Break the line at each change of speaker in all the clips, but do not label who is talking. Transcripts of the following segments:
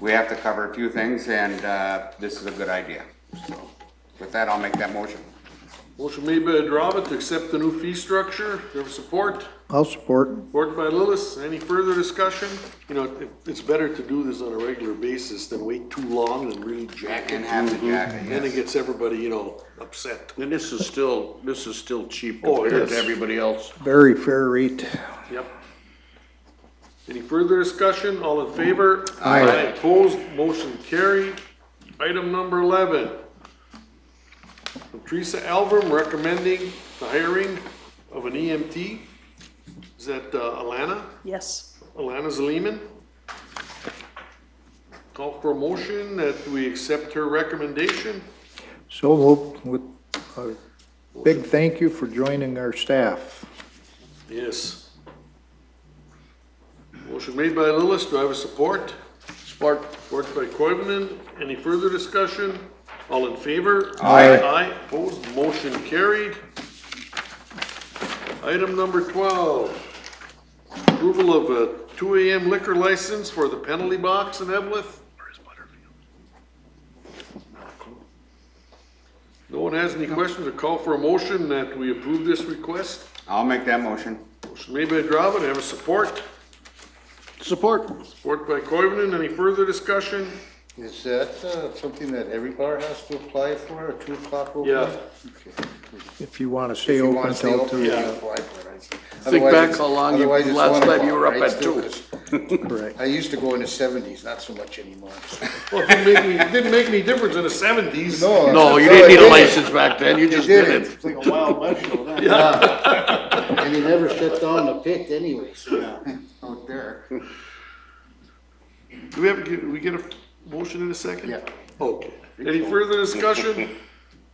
we have to cover a few things, and uh, this is a good idea. So with that, I'll make that motion.
Motion made by Adrava to accept the new fee structure. Do you have support?
I'll support.
Supported by Lillis. Any further discussion? You know, it, it's better to do this on a regular basis than wait too long and really jack it.
And have the jacket,
Then it
yes.
gets everybody, you know, upset.
And this is still, this is still cheap
Oh, it
compared to
is.
everybody else.
Very fair rate.
Yep. Any further discussion? All in favor?
Aye.
Opposed? Motion carried. Item number eleven. From Teresa Alverm recommending the hiring of an EMT. Is that uh, Alana?
Yes.
Alana Lehman. Call for a motion that we accept her recommendation.
So moved with a big thank you for joining our staff.
Yes. Motion made by Lillis, do I have a support? Support. Support by Coivinon, any further discussion? All in favor?
Aye.
Aye, opposed, motion carried. Item number twelve, approval of a two AM liquor license for the penalty box in Evlith. Where's Butterfield? No one has any questions or call for a motion that we approve this request?
I'll make that motion.
Motion made by Dravin, have a support.
Support.
Support by Coivinon, any further discussion?
Is that uh, something that every bar has to apply for, a two o'clock open?
Yeah.
Okay.
If you want to
If
stay
you
open
wanna stay
until
open,
two,
you gotta apply for it. I see.
Think
Otherwise
back
it's-
how long you-
otherwise it's
last
one
time
o'clock,
you were up
right?
at
Still
two.
is.
correct.
I used to go in the seventies, not so much anymore.
Well, it didn't make me, it didn't make any difference in the seventies.
No, you
no,
didn't
it
need a license back then, you
It
just did it.
didn't. Like a wild vegetable then. And he never shut down the pit anyway, so. Out there.
Do we have, get- we get a motion in a second?
Yeah.
Okay. Any further discussion?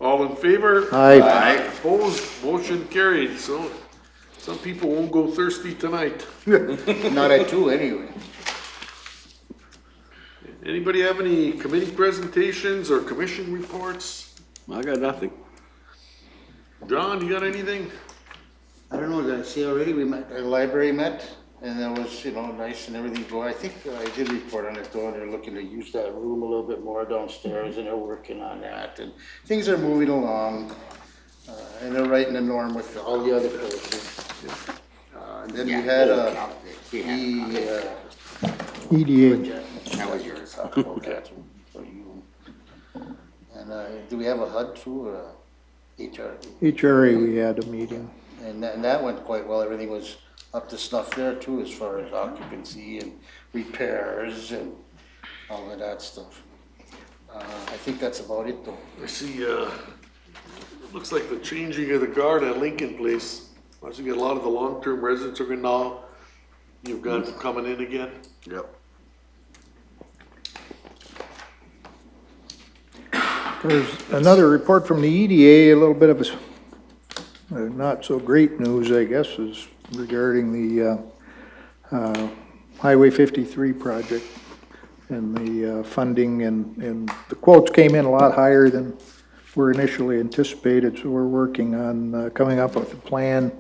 All in favor?
Aye,
Opposed, motion carried, so some people won't go thirsty tonight.
Uh, Not at two anyway.
Anybody have any committee presentations or commission reports?
I got nothing.
John, you got anything?
I don't know, did I say already, we met, the library met, and that was, you know, nice and everything, but I think I did report on it though, and they're looking to use that room a little bit more downstairs, and they're working on that, and things are moving along. Uh, and they're right in the norm with all the other places. Uh, and then we had
Yeah,
a,
he had it.
the, uh,
E EDA.
That was yours.
Talk about that for you. And, uh, do we have a HUD too, or a HR?
HRA, we had a meeting.
And that, and that went quite well, everything was up to snuff there too, as far as occupancy and repairs and all of that stuff. Uh, I think that's about it though.
I see, uh, looks like the changing of the guard at Lincoln Place. I see a lot of the long-term residents are gonna know you've got them coming in again.
Yep.
There's another report from the EDA, a little bit of a s- uh, not so great news, I guess, is regarding the uh, uh, Highway 53 project and the uh, funding and, and the quotes came in a lot higher than were initially anticipated, so we're working on uh, coming up with a plan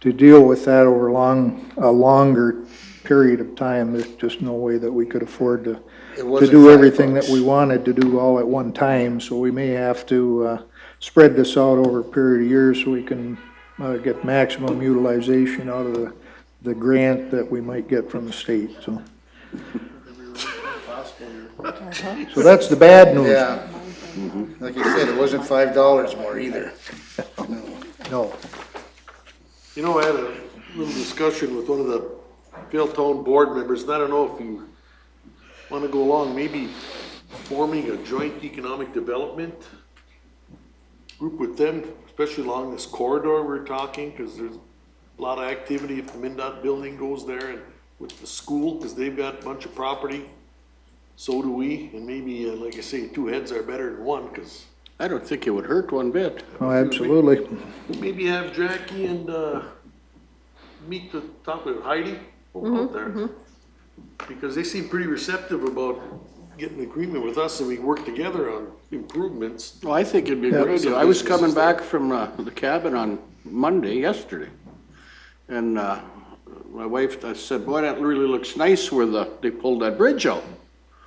to deal with that over long, a longer period of time. There's just no way that we could afford to
It
to
wasn't
do
five
everything that
bucks.
we wanted to do all at one time, so we may have to uh, spread this out over a period of years so we can uh, get maximum utilization out of the, the grant that we might get from the state, so. So that's the bad news.
Yeah,
Mm-hmm.
like you said, it wasn't five dollars more either.
No,
You know, I had a little discussion with one of the Philtown board members, and I don't know if you wanna go along, maybe forming a joint economic development group with them, especially along this corridor we're talking, cause there's a lot of activity if the MinDOT building goes there and with the school, cause they've got a bunch of property. So do we, and maybe, uh, like I say, two heads are better than one, cause
I don't think it would hurt one bit.
oh, absolutely.
maybe have Jackie and, uh, meet the, talk with Heidi out there. Because they seem pretty receptive about getting agreement with us and we work together on improvements.
Well, I think it'd be a good
Yeah.
idea. I was coming back from uh, the cabin on Monday, yesterday. And uh, my wife, I said, boy, that really looks nice where the, they pulled that bridge out.